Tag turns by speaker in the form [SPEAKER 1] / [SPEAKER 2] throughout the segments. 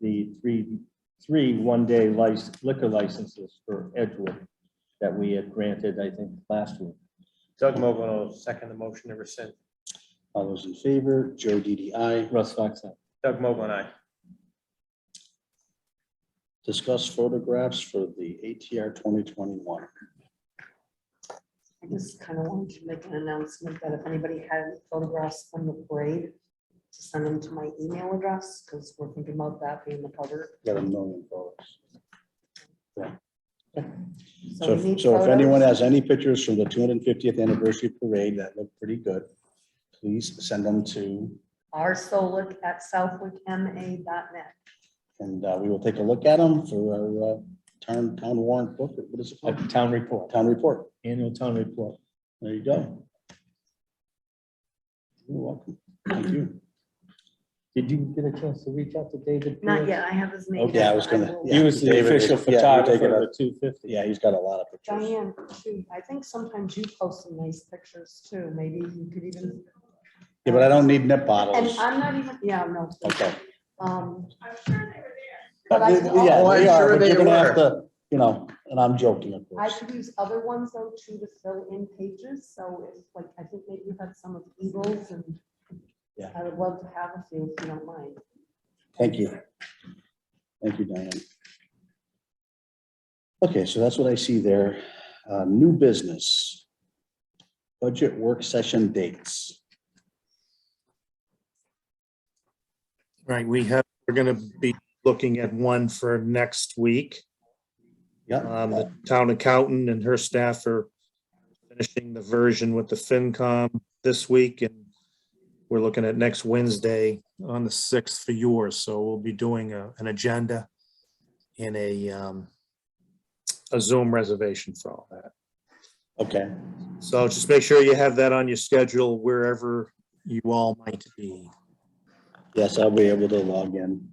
[SPEAKER 1] the three, three one-day lic- liquor licenses for Edgewood that we had granted, I think, last week.
[SPEAKER 2] Doug Mogul will second the motion to rescind.
[SPEAKER 3] All those in favor, Joe DDI.
[SPEAKER 1] Russ Fox, aye.
[SPEAKER 2] Doug Mogul and I.
[SPEAKER 3] Discuss photographs for the ATR 2021.
[SPEAKER 4] I just kind of wanted to make an announcement that if anybody had any photographs from the parade, to send them to my email address, because we're thinking about that being the cover.
[SPEAKER 3] Got a million photos.
[SPEAKER 4] we
[SPEAKER 3] So
[SPEAKER 4] need
[SPEAKER 3] if- so if anyone
[SPEAKER 4] photos.
[SPEAKER 3] has any pictures from the 250th anniversary parade that look pretty good, please send them to,
[SPEAKER 4] rsolik@southwickma.net.
[SPEAKER 3] and uh, we will take a look at them for our uh, town, town warrant book. What is it
[SPEAKER 1] Uh,
[SPEAKER 3] called?
[SPEAKER 1] Town report,
[SPEAKER 3] Town report.
[SPEAKER 1] annual town report.
[SPEAKER 3] There you go. You're welcome. Thank you.
[SPEAKER 1] Did you get a chance to reach out to David?
[SPEAKER 4] Not
[SPEAKER 1] Pierce?
[SPEAKER 4] yet, I have his name.
[SPEAKER 3] Okay, I was gonna-
[SPEAKER 4] will-
[SPEAKER 1] He was the
[SPEAKER 3] David,
[SPEAKER 1] official
[SPEAKER 3] yeah, you take it up.
[SPEAKER 1] photographer of the two fifty.
[SPEAKER 3] Yeah, he's got a lot of pictures.
[SPEAKER 4] Diane, too, I think sometimes you post some nice pictures too, maybe you could even.
[SPEAKER 3] Yeah, but I don't need nip
[SPEAKER 4] And
[SPEAKER 3] bottles.
[SPEAKER 4] I'm not even, yeah, no.
[SPEAKER 3] Okay.
[SPEAKER 4] Um, But
[SPEAKER 3] But
[SPEAKER 4] I
[SPEAKER 3] we-
[SPEAKER 4] can
[SPEAKER 3] we-
[SPEAKER 2] also-
[SPEAKER 3] Yeah,
[SPEAKER 2] Oh, I'm
[SPEAKER 3] we
[SPEAKER 2] sure
[SPEAKER 3] are, but
[SPEAKER 2] they
[SPEAKER 3] you're gonna have
[SPEAKER 2] were.
[SPEAKER 3] to, you know, and I'm joking, of
[SPEAKER 4] I
[SPEAKER 3] course.
[SPEAKER 4] could use other ones though too to fill in pages, so if, like, I think maybe you have some of Eagles and
[SPEAKER 3] Yeah.
[SPEAKER 4] I would love to have a few if you don't mind.
[SPEAKER 3] Thank you. Thank you, Diane. Okay, so that's what I see there. Uh, New business. Budget work session dates.
[SPEAKER 5] Right, we have, we're gonna be looking at one for next week. Um,
[SPEAKER 3] Yeah,
[SPEAKER 5] the town accountant and her staff are finishing the version with the FinCom this week and we're looking at next Wednesday on the sixth for yours, so we'll be doing a, an agenda in a, um, a Zoom reservation for all that.
[SPEAKER 3] okay,
[SPEAKER 5] So just make sure you have that on your schedule wherever you all might be.
[SPEAKER 3] yes, I'll be able to log in.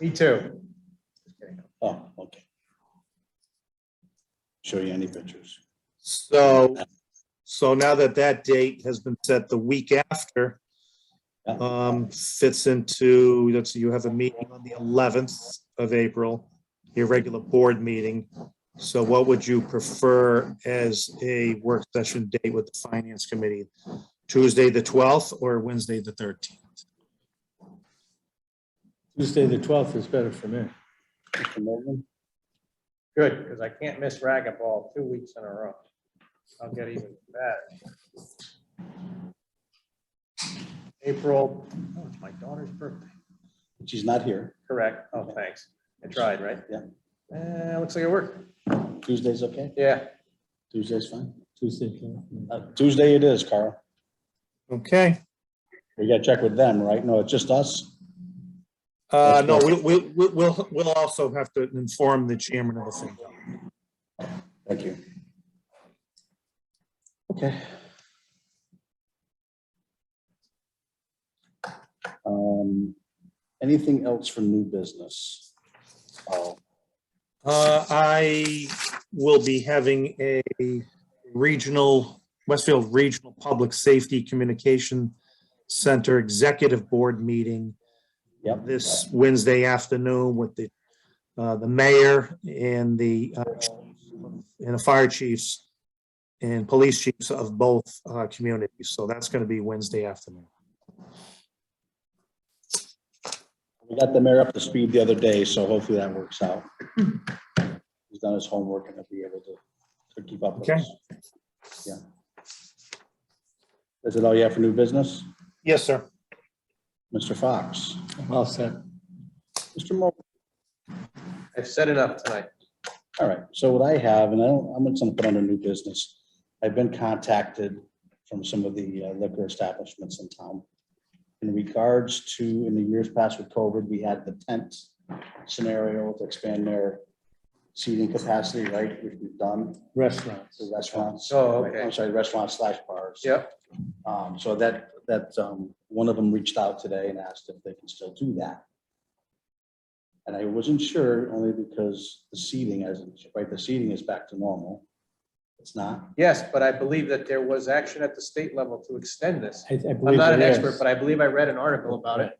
[SPEAKER 2] Me too.
[SPEAKER 3] Oh, okay. Show you any pictures.
[SPEAKER 5] So, so now that that date has been set the week after,
[SPEAKER 3] Yeah.
[SPEAKER 5] um, fits into, let's see, you have a meeting on the eleventh of April, your regular board meeting. So what would you prefer as a work session date with the finance committee? Tuesday, the twelfth or Wednesday, the thirteenth?
[SPEAKER 1] Tuesday, the twelfth is better for me.
[SPEAKER 3] Mr. Morgan?
[SPEAKER 2] Good, because I can't miss racquetball two weeks in a row. I'll get even better. April, oh, it's my daughter's birthday.
[SPEAKER 3] She's not here.
[SPEAKER 2] Correct. Oh, thanks. I tried, right?
[SPEAKER 3] Yeah.
[SPEAKER 2] Yeah. looks like it worked.
[SPEAKER 3] Tuesday's okay?
[SPEAKER 2] Yeah.
[SPEAKER 3] Tuesday's fine?
[SPEAKER 1] Tuesday. yeah.
[SPEAKER 3] Uh, Tuesday it is, Carl.
[SPEAKER 5] Okay,
[SPEAKER 3] We gotta check with them, right? No, it's just us?
[SPEAKER 5] uh, no, we, we, we- we'll, we'll also have to inform the chairman of the thing.
[SPEAKER 3] Thank you. Okay. Um, anything else for new business? Oh,
[SPEAKER 5] Uh, I will be having a regional, Westfield Regional Public Safety Communication Center Executive Board meeting
[SPEAKER 3] yep.
[SPEAKER 5] this Wednesday afternoon with the, uh, the mayor and the, uh, and the fire chiefs and police chiefs of both, uh, communities. So that's gonna be Wednesday afternoon.
[SPEAKER 3] We got the mayor up to speed the other day, so hopefully that works out. He's done his homework and he'll be able to, to keep up with
[SPEAKER 5] Okay.
[SPEAKER 3] us. Yeah. Is it all you have for new business?
[SPEAKER 5] Yes, sir.
[SPEAKER 3] Mr. Fox?
[SPEAKER 1] I'll set.
[SPEAKER 3] Mr. Mo?
[SPEAKER 2] I've said enough tonight.
[SPEAKER 3] All right, so what I have, and I don't, I'm just gonna put under new business, I've been contacted from some of the uh, liquor establishments in town. In regards to, in the years past with COVID, we had the tent scenario to expand their seating capacity, right, which we've done,
[SPEAKER 1] Restaurants.
[SPEAKER 3] the restaurants.
[SPEAKER 2] Oh,
[SPEAKER 3] right,
[SPEAKER 2] okay.
[SPEAKER 3] I'm sorry, restaurants slash bars.
[SPEAKER 2] Yep.
[SPEAKER 3] Um, so that, that, um, one of them reached out today and asked if they can still do that. And I wasn't sure, only because the seating, as, right, the seating is back to normal. It's not,
[SPEAKER 2] Yes, but I believe that there was action at the state level to extend this.
[SPEAKER 1] I- I believe
[SPEAKER 2] I'm not
[SPEAKER 1] it
[SPEAKER 2] an
[SPEAKER 1] is.
[SPEAKER 2] expert, but I believe I read an article about it.